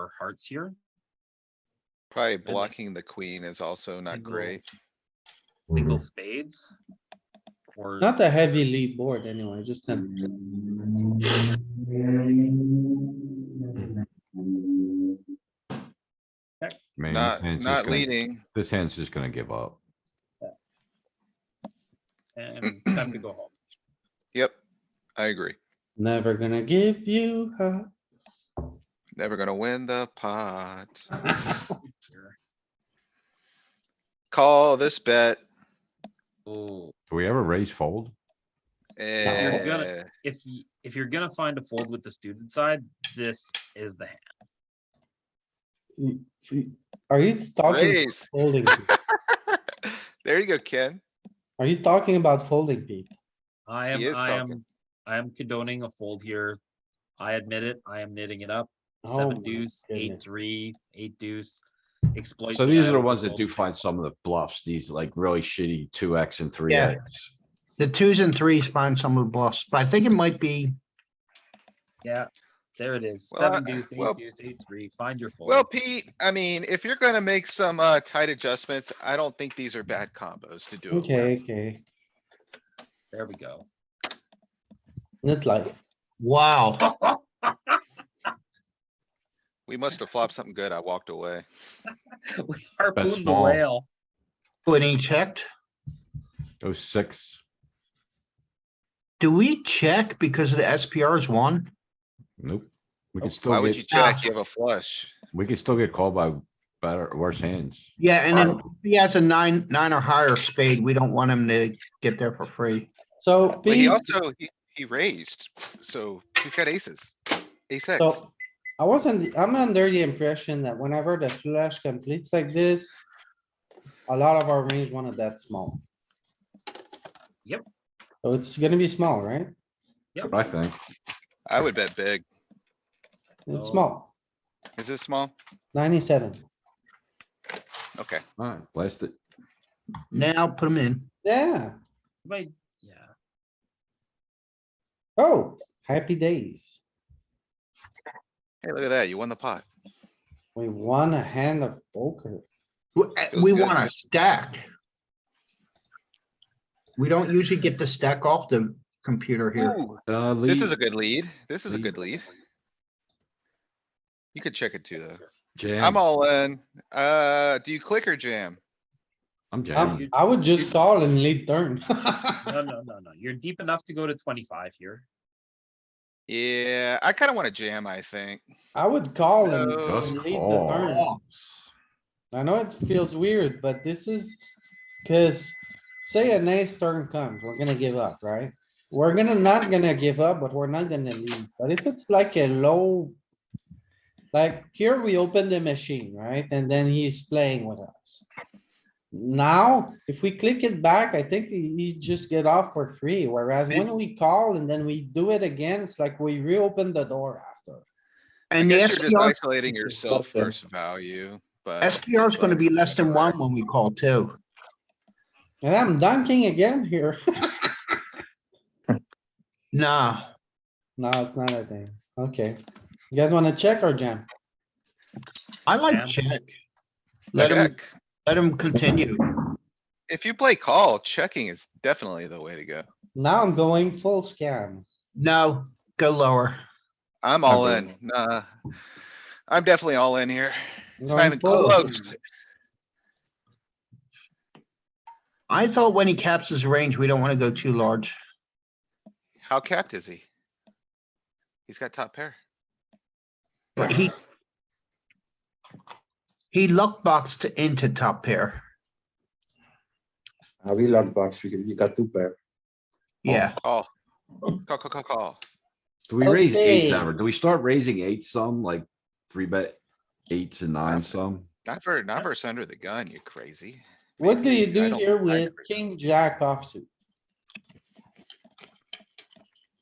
our hearts here. Probably blocking the queen is also not Single- great. Single Mm-hmm. spades. Or Not a heavy lead board anyway, just a. Man, this Not, hand's just not gonna- leading. This hand's just gonna give up. and time to go home. Yep, I agree. Never gonna give you up. Never gonna win the pot. here. Call this bet. Oh, Do we ever raise fold? you're gonna- Eh, if y- if you're gonna find a fold with the student side, this is the hand. Are you talking Raise. folding? There you go, Ken. Are you talking about folding, Pete? I He am, is I talking. am, I am condoning a fold here. I admit it. I am knitting it up. Oh Seven my deuce, eight, goodness. three, eight deuce. Exploit. So these are the Iowa ones that fold. do find some of the bluffs, these like really shitty two X and three X. The twos and threes find some of the bluffs, but I think it might be, Yeah, there it is. Well, Seven I- deuce, well- eight deuce, eight, three. Find your fold. Well, Pete, I mean, if you're gonna make some, uh, tight adjustments, I don't think these are bad combos to do it Okay, with. okay, There we go. not like, wow, We must have flopped something good. I walked away. We harpooned the small. whale. when he checked, Go six, do we check because of the SPR's one? nope. We can Why still would you get, Ah. check? You have a flush. we can still get called by better, worse hands. Yeah, and then if he has a nine, nine or higher spade, we don't want him to get there for free. so But he Pete, also, he, he raised, so he's got aces. Ace X. so I wasn't, I'm under the impression that whenever the flush completes like this, a lot of our range wanted that small. Yep. So it's gonna be small, right? I think, I would bet big. It's Oh. small, Is this small? ninety-seven. Okay. alright, blast it. Now put him in. Yeah, Wait, yeah. oh, happy days. Hey, look at that. You won the pot. We won a hand of poker. W- eh, Feels We good. want a stack. We don't usually get the stack off the computer here. Ooh, Uh, this is a lead, good lead. This is a lead. good lead. You could check it too, though. I'm jam, all in. Uh, do you click or jam? I'm Um, jamming. I would just call and lead turn. No, no, no, no. You're deep enough to go to twenty-five here. Yeah, I kinda wanna jam, I think. I would call and No. Just lead the turn. call. I know it feels weird, but this is, cuz say a nice turn comes, we're gonna give up, right? We're gonna not gonna give up, but we're not gonna lead. But if it's like a low, like here we open the machine, right? And then he's playing with us. Now, if we click it back, I think he he just get off for free, whereas when we call and then we do it again, it's like we reopen the door after. I And the guess you're just SPR, isolating is yourself better. versus value, but SPR is gonna be less than one when we call too. And I'm dunking again here. Nah, No, it's not a thing. Okay. You guys wanna check or jam? I Jam. like check. Let him, check. let him continue. If you play call, checking is definitely the way to go. Now I'm going full scam. No, go lower. I'm all Agreed. in. Nah. I'm definitely all in here. I'm It's going not even full close. scam. I thought when he caps his range, we don't wanna go too large. How capped is he? He's got top pair. But he. He luck boxed into top pair. How we luck box, you got- you got two pair. Yeah, Oh, Call. Call, call, call, call. Do we raise eights Okay. ever? Do we start raising eight some, like three bet eights and nine some? Not for, not versus under the gun, you crazy. What do you I do don't- here I with never- king jack off to?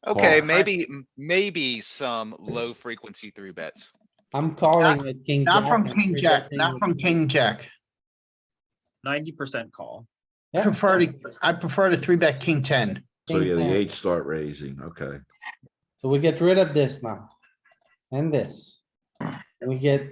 Okay, Call. maybe, m- maybe some low frequency three bets. I'm calling with king. not jack from and king three jack, betting not with- from king jack. Ninety percent call. I Yeah. prefer to, I prefer to three bet king ten. So King yeah, the jack. eights start raising, okay. So we get rid of this now. And this. We get